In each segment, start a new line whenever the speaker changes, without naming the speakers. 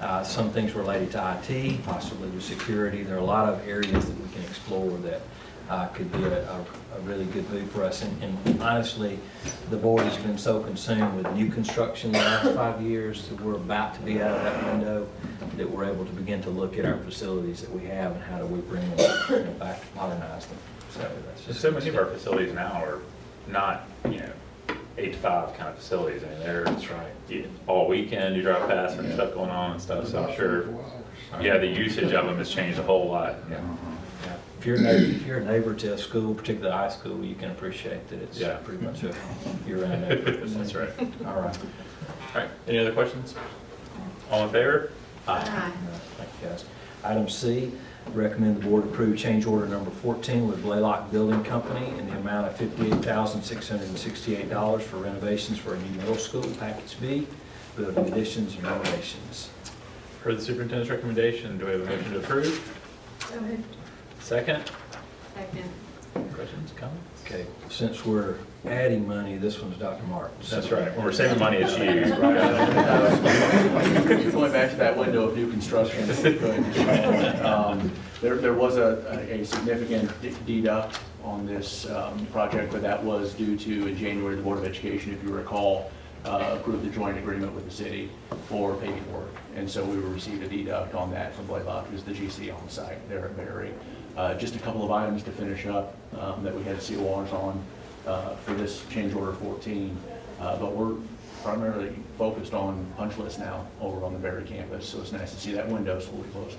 uh, some things related to IT, possibly to security. There are a lot of areas that we can explore that uh, could be a a- a really good move for us. And- And honestly, the board has been so consumed with new construction the last five years that we're about to be out of that window, that we're able to begin to look at our facilities that we have and how do we bring them you know, back, modernize them. So that's just.
So many of our facilities now are not, you know, eight to five kind of facilities. I mean, they're
That's right.
yeah, all weekend, you drive past and stuff going on and stuff, so I'm sure, yeah, the usage of them has changed a whole lot.
Yeah. Yeah. If you're a neighbor, if you're a neighbor to a school, particularly high school, you can appreciate that it's
Yeah.
pretty much a, you're in a neighborhood.
That's right.
All right.
All right, any other questions? All in favor?
Uh, Thank you, guys. Item C, recommend the board approve change order number 14 with Blaylock Building Company in the amount of $58,668 for renovations for a new middle school, package B, building additions and renovations.
Heard the superintendent's recommendation, do we have a motion to approve?
So moved.
Second,
Second.
questions, comments?
Okay, since we're adding money, this one's Dr. Martin's.
That's right, when we're saving money, it's used.
Going back to that window of new construction, if we could, um, there, there was a, a significant de- deduct on this um, project, but that was due to, in January, the Board of Education, if you recall, uh, approved the joint agreement with the city for paving work. And so we received a deduct on that from Blaylock, who's the GC on site there at Berry. Uh, Just a couple of items to finish up um, that we had CORs on uh, for this change order 14, Uh, but we're primarily focused on punch list now over on the Berry campus, so it's nice to see that window slowly closing.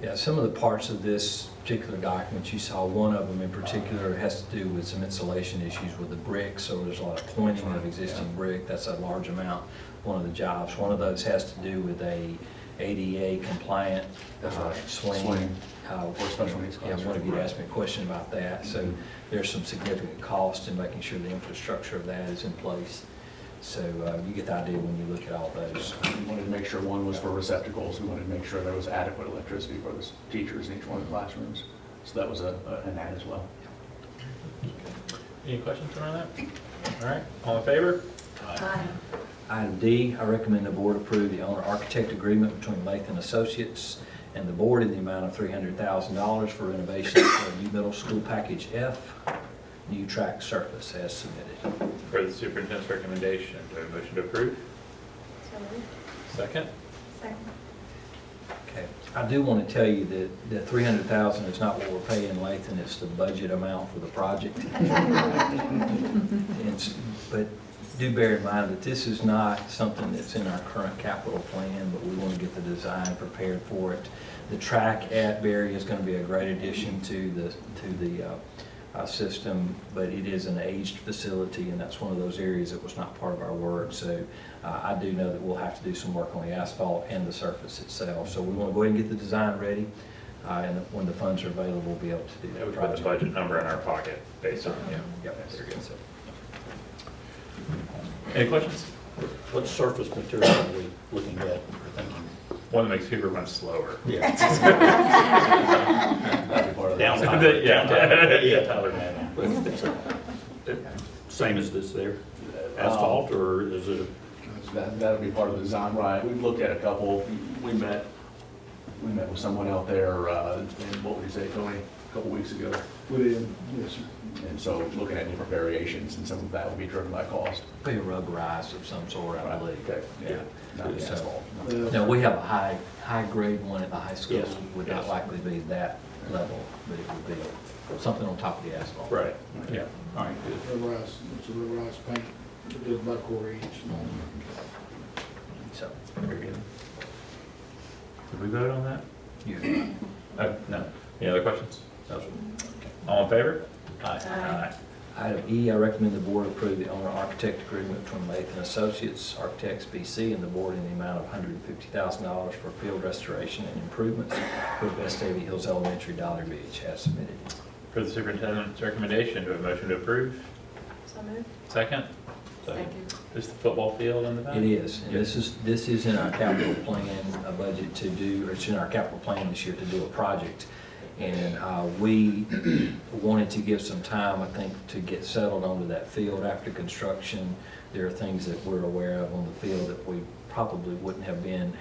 Yeah, some of the parts of this particular document, you saw one of them in particular has to do with some insulation issues with the brick, so there's a lot of pointing of existing brick, that's a large amount, one of the jobs. One of those has to do with a ADA compliant
That's
uh,
right.
swing.
Swing.
uh,
Or special Mm-hmm. needs
Yeah, one of you
classroom.
asked me a question about that, so there's some significant cost in making sure the infrastructure of that is in place. So uh, you get the idea when you look at all those.
We wanted to make sure one was for receptacles, we wanted to make sure there was adequate electricity for the teachers in each one of the classrooms. So that was a, a- an add as well.
Any questions around that? All right, all in favor?
Aye.
Item D, I recommend the board approve the owner-architect agreement between Lathan Associates and the board in the amount of $300,000 for renovations for a new middle school package F, new track surface as submitted.
For the superintendent's recommendation, do we have a motion to approve?
So moved.
Second?
Second.
Okay. I do want to tell you that the $300,000 is not what we're paying Lathan, it's the budget amount for the project. And s- But do bear in mind that this is not something that's in our current capital plan, but we want to get the design prepared for it. The track at Berry is going to be a great addition to the, to the uh, uh, system, but it is an aged facility, and that's one of those areas that was not part of our work. So uh, I do know that we'll have to do some work on the asphalt and the surface itself. So we want to go ahead and get the design ready, uh, and when the funds are available, we'll be able to do
That
that
would put the
project.
budget number in our pocket based on, yeah.
Yep,
Very good.
so.
Any questions?
What surface material are we looking at or thinking?
One that makes people run slower.
Yeah.
That'd be part of the-
Downtime.
Yeah.
Downtime. Yeah, Tyler, man. Uh, Same as this there?
Uh,
Asphalt or is it?
That, that'll be part of the design, right? We've looked at a couple, we met, we met with someone out there, uh, in, what would you say, Tony, a couple weeks ago?
Within, yes, sir.
And so looking at different variations, and some of that will be driven by cost.
Be a rubberized of some sort, I believe.
Okay, yeah. Not the
So-
asphalt.
Uh,
Now, we have a high, high-grade one at the high school.
Yes,
Would not
yes.
likely be that level, but it would be something on top of the asphalt.
Right, yeah, all right, good.
Rubberized, it's a rubberized paint, it does about a quarter inch long.
So,
Very good. Did we vote on that?
you,
Uh, No. Any other questions? No. All in favor?
Aye.
item E, I recommend the board approve the owner-architect agreement between Lathan Associates Architects BC and the board in the amount of $150,000 for field restoration and improvements for Vestavia Hills Elementary Dollar Beach as submitted.
For the superintendent's recommendation, do we have a motion to approve?
So moved.
Second?
Second.
Is the football field in the back?
It is, and this is, this is in our capital plan, a budget to do, or it's in our capital plan this year to do a project. And uh, we wanted to give some time, I think, to get settled onto that field after construction. There are things that we're aware of on the field that we probably wouldn't have been